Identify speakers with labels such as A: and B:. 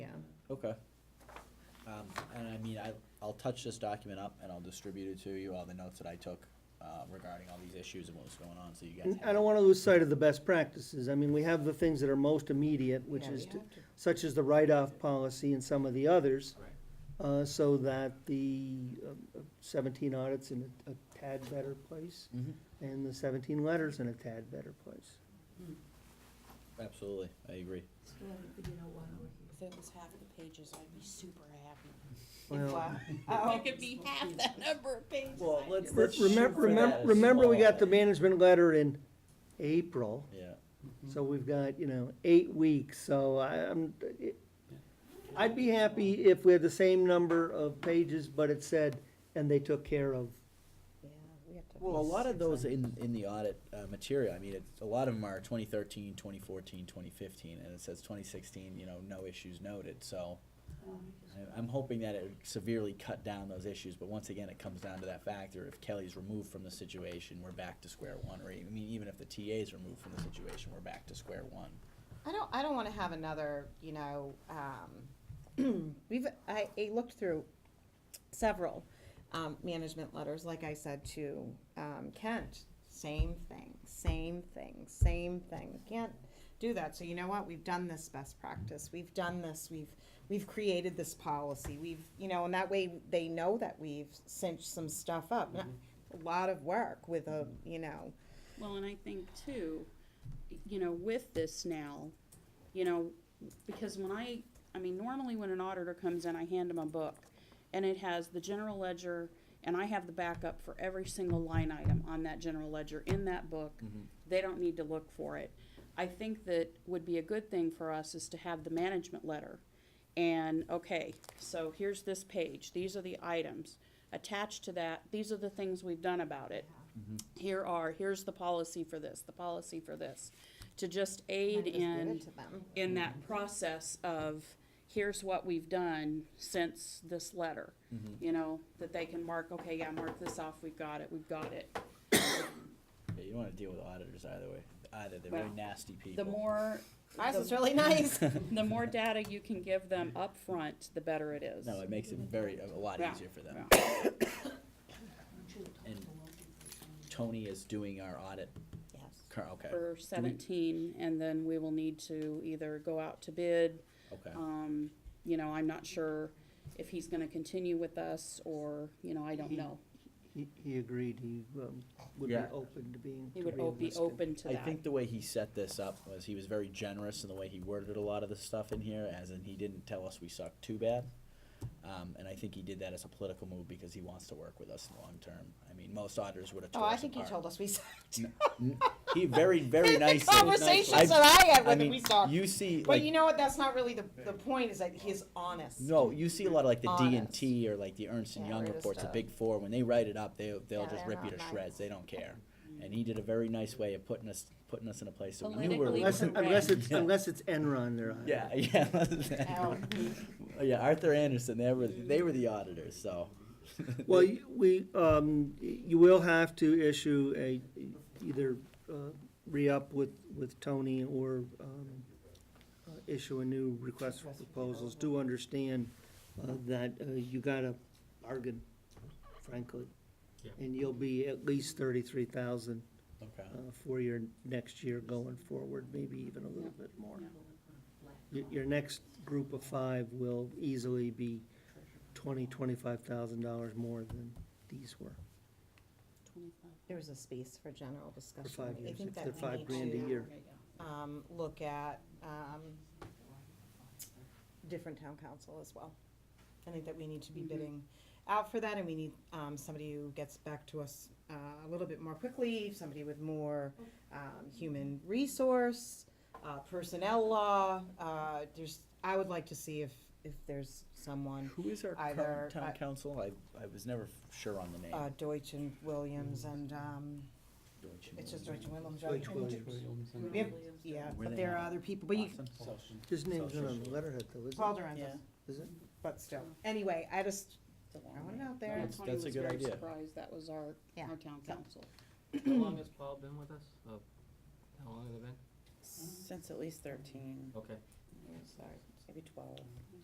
A: Okay. Um, and I mean, I, I'll touch this document up and I'll distribute it to you, all the notes that I took, uh, regarding all these issues and what was going on, so you guys.
B: And
A: have
B: Mm, I don't
A: it.
B: wanna lose sight of the best practices. I mean, we have the things that are most immediate, which
C: Yeah,
B: is,
C: we
B: to-
C: have to.
B: such as the write-off policy and some of the others.
A: Right.
B: Uh, so that the um, seventeen audits in a a tad better place
A: Mhm.
B: and the seventeen letters in a tad better place.
A: Absolutely, I agree.
C: Still haven't figured out why we're here.
D: If it was half the pages, I'd be super happy.
B: Well,
D: If it could be half that number of pages.
A: Well,
D: I'd
A: let's-
D: be-
A: let's- shoot
B: remember,
A: for
B: remember,
A: that as
B: remember we got
A: small.
B: the management letter in April,
A: Yeah,
B: so we've got, you know, eight weeks, so I, I'm, it- I'd be happy if we had the same number of pages, but it said, and they took care of
C: Yeah, we have to.
A: well, a lot of those in, in the audit, uh, material, I mean, it's, a lot of them are 2013, 2014, 2015, and it says twenty sixteen, you know, no issues noted, so. I- I'm hoping that it would severely cut down those issues, but once again, it comes down to that factor, if Kelly's removed from the situation, we're back to square one, or even, I mean, even if the TA's removed from the situation, we're back to square one.
C: I don't, I don't wanna have another, you know, um, we've, I, I looked through several, um, management letters, like I said to, um, Kent. Same thing, same thing, same thing. Can't do that. So you know what? We've done this best practice. We've done this. We've, we've created this policy. We've, you know, and that way they know that we've cinched some stuff up. Not- A lot of work with a, you know,
E: Well, and I think too, you know, with this now, you know, because when I, I mean, normally when an auditor comes in, I hand them a book and it has the general ledger and I have the backup for every single line item on that general ledger in that book. They don't need to look for it. I think that would be a good thing for us is to have the management letter. And, okay, so here's this page, these are the items. Attached to that, these are the things we've done about it here are, here's the policy for this, the policy for this, to just
C: and
E: aid
C: just give
E: in,
C: it to them.
E: in that process of, here's what we've done since this letter.
A: Mm-hmm.
E: You know, that they can mark, okay, yeah, mark this off, we've got it, we've got it.
A: Yeah, you don't wanna deal with auditors either way, either, they're very
E: Well,
A: nasty people.
E: The more,
C: Ours
E: the-
C: is really nice.
E: the more data you can give them upfront, the better it is.
A: No, it makes it very, a lot
E: Yeah,
A: easier for them.
E: yeah.
A: And Tony is doing our audit,
C: Yes.
A: cur- okay,
E: For seventeen, and then we will need to either go out to bid,
A: okay.
E: Um, you know, I'm not sure if he's gonna continue with us or, you know, I don't know.
B: He, he agreed, he um, would be
A: Yeah.
B: open to being,
E: He
B: to
E: would o-
B: being
E: be
B: listed.
E: open to
A: I
E: that.
A: think the way he set this up was he was very generous in the way he worded a lot of the stuff in here, as in he didn't tell us we sucked too bad. Um, and I think he did that as a political move because he wants to work with us long term. I mean, most auditors would have
C: Oh,
A: tore
C: I
A: us
C: think you
A: apart.
C: told us we saw.
A: N- He very, very nicely.
C: Conversations
A: I've-
C: that I had
A: I
C: with him,
A: mean,
C: we saw.
A: you see,
C: But you
A: like,
C: know what, that's not really the, the point, is that he's honest.
A: no, you see a lot of like the D and
C: Honest.
A: T or like the Ernst and
C: Yeah,
A: Young
C: we're
A: reports,
C: just,
A: the
C: uh,
A: big four, when they write it up, they, they'll
C: Yeah,
A: just
C: they're
A: rip you
C: not
A: to
C: nice.
A: shreds, they don't care. And he did a very nice way of putting us, putting us in a place that we knew
E: Politically
A: were.
B: Unless, it- unless it's,
A: Yeah.
B: unless it's Enron they're on.
A: Yeah, yeah.
C: Oh.
A: Yeah, Arthur Anderson, they were, they were the auditors, so.
B: Well, you- we, um, you will have to issue a, either, uh, re-up with, with Tony or, um, uh, issue a new request for proposals. Do understand, uh, that, uh, you gotta bargain, frankly. And you'll be at least thirty-three thousand,
A: Okay,
C: Mm-hmm.
B: uh, for your next year going forward, maybe even a little bit more. Your, your next group of five will easily be twenty, twenty-five thousand dollars more than these were.
C: There was a space for general
B: For
C: discussion.
B: five
C: I
B: years,
C: think
B: if
C: that
B: they're
C: we
B: five
C: need
B: grand a
C: to,
B: year.
C: Um, look at, um, different town council as well. I think that we need to be bidding out for that, and we need, um, somebody who gets back to us, uh, a little bit more quickly, somebody with more, um, human resource, uh, personnel law, uh, there's, I would like to see if, if there's someone,
A: who is our
C: Either-
A: current town
C: I-
A: council? I, I was never f- sure on the name.
C: uh, Deutsch and Williams and, um,
A: Deutsche
C: it's just
A: Bank.
C: Deutsch and Williams, right?
B: Deutsch Williams.
C: We have- Yeah,
A: Where
C: but
A: they
C: there are
A: at?
C: other people, but you,
A: Awesome.
B: His name's not on the letterhead though, is
C: Paul
B: it?
C: Duran's,
A: Yeah.
B: Is it?
C: but still, anyway, I just, I want it out there.
A: That's- that's a good
E: Tony was
A: idea.
E: very surprised that was our,
C: Yeah.
E: our town council.
F: How long has Paul been with us? Oh, how long have they been?
D: Since at least thirteen,
F: Okay.
D: sorry, maybe twelve.